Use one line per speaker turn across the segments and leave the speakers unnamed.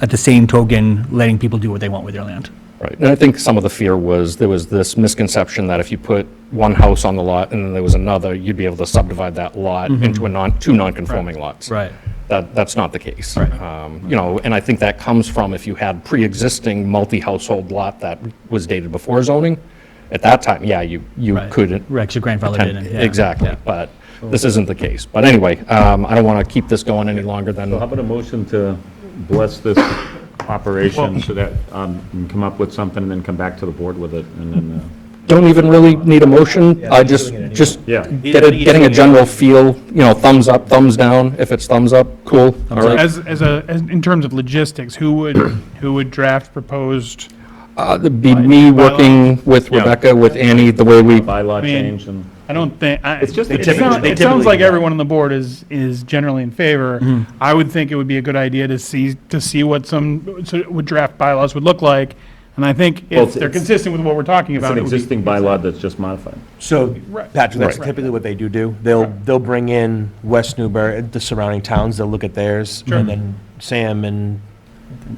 at the same token, letting people do what they want with their land.
Right, and I think some of the fear was, there was this misconception that if you put one house on the lot and then there was another, you'd be able to subdivide that lot into a non, two non-conforming lots.
Mm-hmm. Right.
That, that's not the case.
Right.
Um, You know, and I think that comes from if you had pre-existing multi-household lot that was dated before zoning, at that time, yeah, you, you
Right.
could.
Right, 'cause your grandfather
poten-
didn't, yeah.
Exactly, but this isn't the case. But anyway, um, I don't want to keep this going any longer than.
How about a motion to bless this operation so that, um, we can come up with something and then come back to the board with it and then, uh,
don't even really need a motion, I just, just
Yeah.
get a- getting a general feel, you know, thumbs up, thumbs down, if it's thumbs up, cool, all right.
As, as a, as- in terms of logistics, who would, who would draft proposed,
Uh, it'd Be me working with Rebecca, with Annie, the way we,
bylaw
mean-
change and.
I don't think, I, it
just a- They
sounds,
typically-
it sounds like everyone on the board is, is generally in favor.
Mm-hmm.
I would think it would be a good idea to see, to see what some, so what draft bylaws would look like. And I think
Well,
if they're
it's-
consistent with what we're talking
It's
about,
an
it would be,
existing bylaw that's just modified.
So,
Right.
Patrick, that's
Right.
typically what they do do. They'll, they'll bring in West Newbury, the surrounding towns, they'll look at theirs,
Sure.
and then Sam and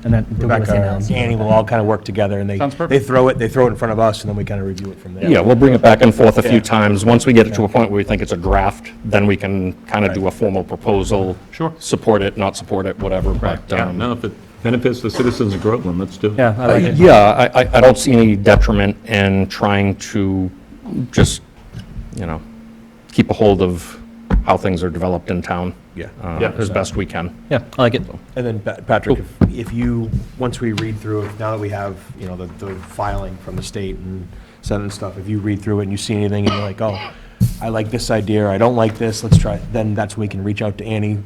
And then they'll go with
Rebecca
the
and
same
Annie will all kind of work together, and they,
Sounds perfect.
they throw it, they throw it in front of us, and then we kind of review it from there.
yeah, we'll bring it back and forth a few times. Once we get it to a point where we think it's a draft, then we can kind of do a formal proposal.
Sure.
Support it, not support it, whatever, but,
Yeah,
um,
no, if it benefits the citizens of Groveland, let's do it.
Yeah, I like it.
Uh, yeah, I, I, I don't see any detriment in trying to just, you know, keep a hold of how things are developed in town.
Yeah.
uh,
Yeah.
as best we can.
Yeah, I like it.
And then, Pa- Patrick, if- if you, once we read through, it, now that we have, you know, the, the filing from the state and Senate and stuff, if you read through it and you see anything and you're like, oh, I like this idea, or I don't like this, let's try, it," then that's when we can reach out to Annie,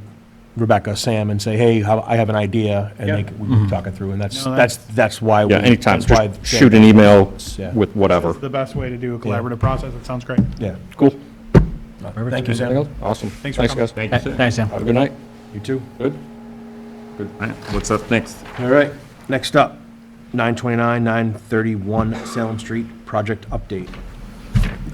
Rebecca, Sam, and say, hey, how- I have an idea, and they
Yeah.
can, we can talk it through, and that's,
No,
that's, that's why. we-
Mm-hmm. Yeah, anytime,
that's why-
just shoot an email
Yeah.
with whatever.
that's the best way to do a collaborative process. That sounds great.
Yeah,
Cool.
thank you, Sam.
Awesome. Thanks,
for coming.
guys.
Thank you, sir.
Thanks, Sam.
Have a good night.
You too.
Good.
Good. All right, What's up next?
All right, next up, 929, 931 Salem Street, project update.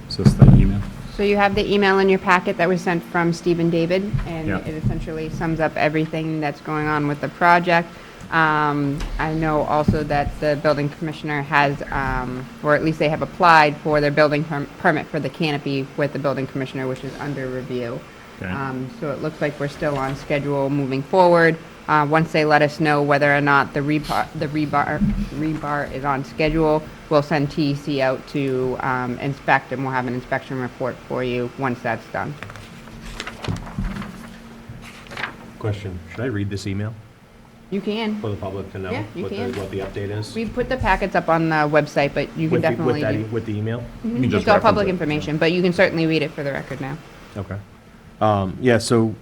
Is this the email?
So you have the email in your packet that was sent from Stephen David, and
Yeah.
it essentially sums up everything that's going on with the project. Um, I know also that the building commissioner has, um, or at least they have applied for their building perm- permit for the canopy with the building commissioner, which is under review.
Okay.
Um, So it looks like we're still on schedule moving forward. Uh, Once they let us know whether or not the rebar, the rebar, rebar is on schedule, we'll send TEC out to um, inspect, and we'll have an inspection report for you once that's done.
Question, should I read this email?
You can.
for the public to know
Yeah, you
what the,
can.
what the update is?
We put the packets up on the website, but you can
With the- with
definitely.
that e-
do- Mm-hmm.
With the email?
You can just
It's all
reference
public
it.
information, but you can certainly read it for the record now.
Okay. Um, yeah, so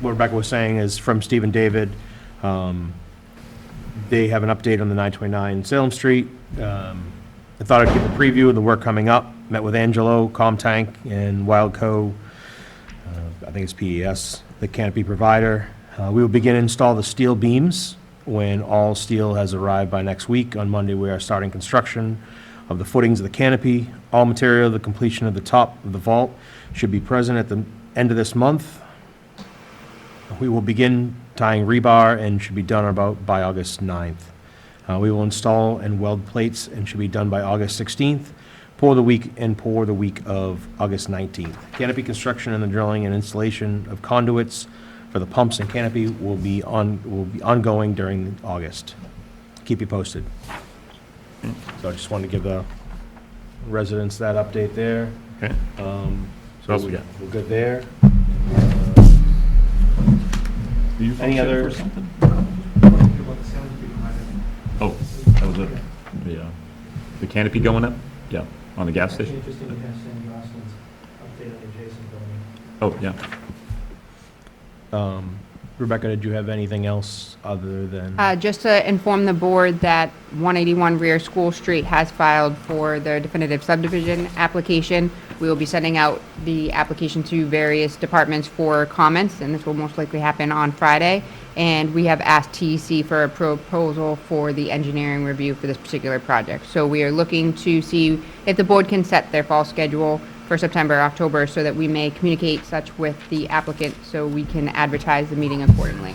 what Rebecca was saying is from Stephen David, um, they have an update on the 929 Salem Street. Um, I thought I'd give a preview of the work coming up. Met with Angelo, Comtank, and Wildco, uh, I think it's PES, the canopy provider. Uh, we will begin to install the steel beams when all steel has arrived by next week. On Monday, we are starting construction of the footings of the canopy. All material, the completion of the top of the vault should be present at the end of this month. We will begin tying rebar and should be done about by August 9th. Uh, We will install and weld plates and should be done by August 16th, pour the week, and pour the week of August 19th. Canopy construction and the drilling and installation of conduits for the pumps and canopy will be on, will be ongoing during August. Keep you posted. So I just wanted to give the residents that update there.
Okay.
Um,
What else we got?
We're good there. Uh,
Are you
Any
functioning
other-
for something? Oh, that was it. The, uh, the canopy going up? Yeah, on the gas
Actually,
station?
interesting, you have Sandy Roslin's update on the adjacent building.
Oh, yeah.
Um, Rebecca, did you have anything else other than?
Uh, Just to inform the board that 181 Rear School Street has filed for their definitive subdivision application. We will be sending out the application to various departments for comments, and this will most likely happen on Friday. And we have asked TEC for a proposal for the engineering review for this particular project. So we are looking to see if the board can set their fall schedule for September, October, so that we may communicate such with the applicant, so we can advertise the meeting accordingly.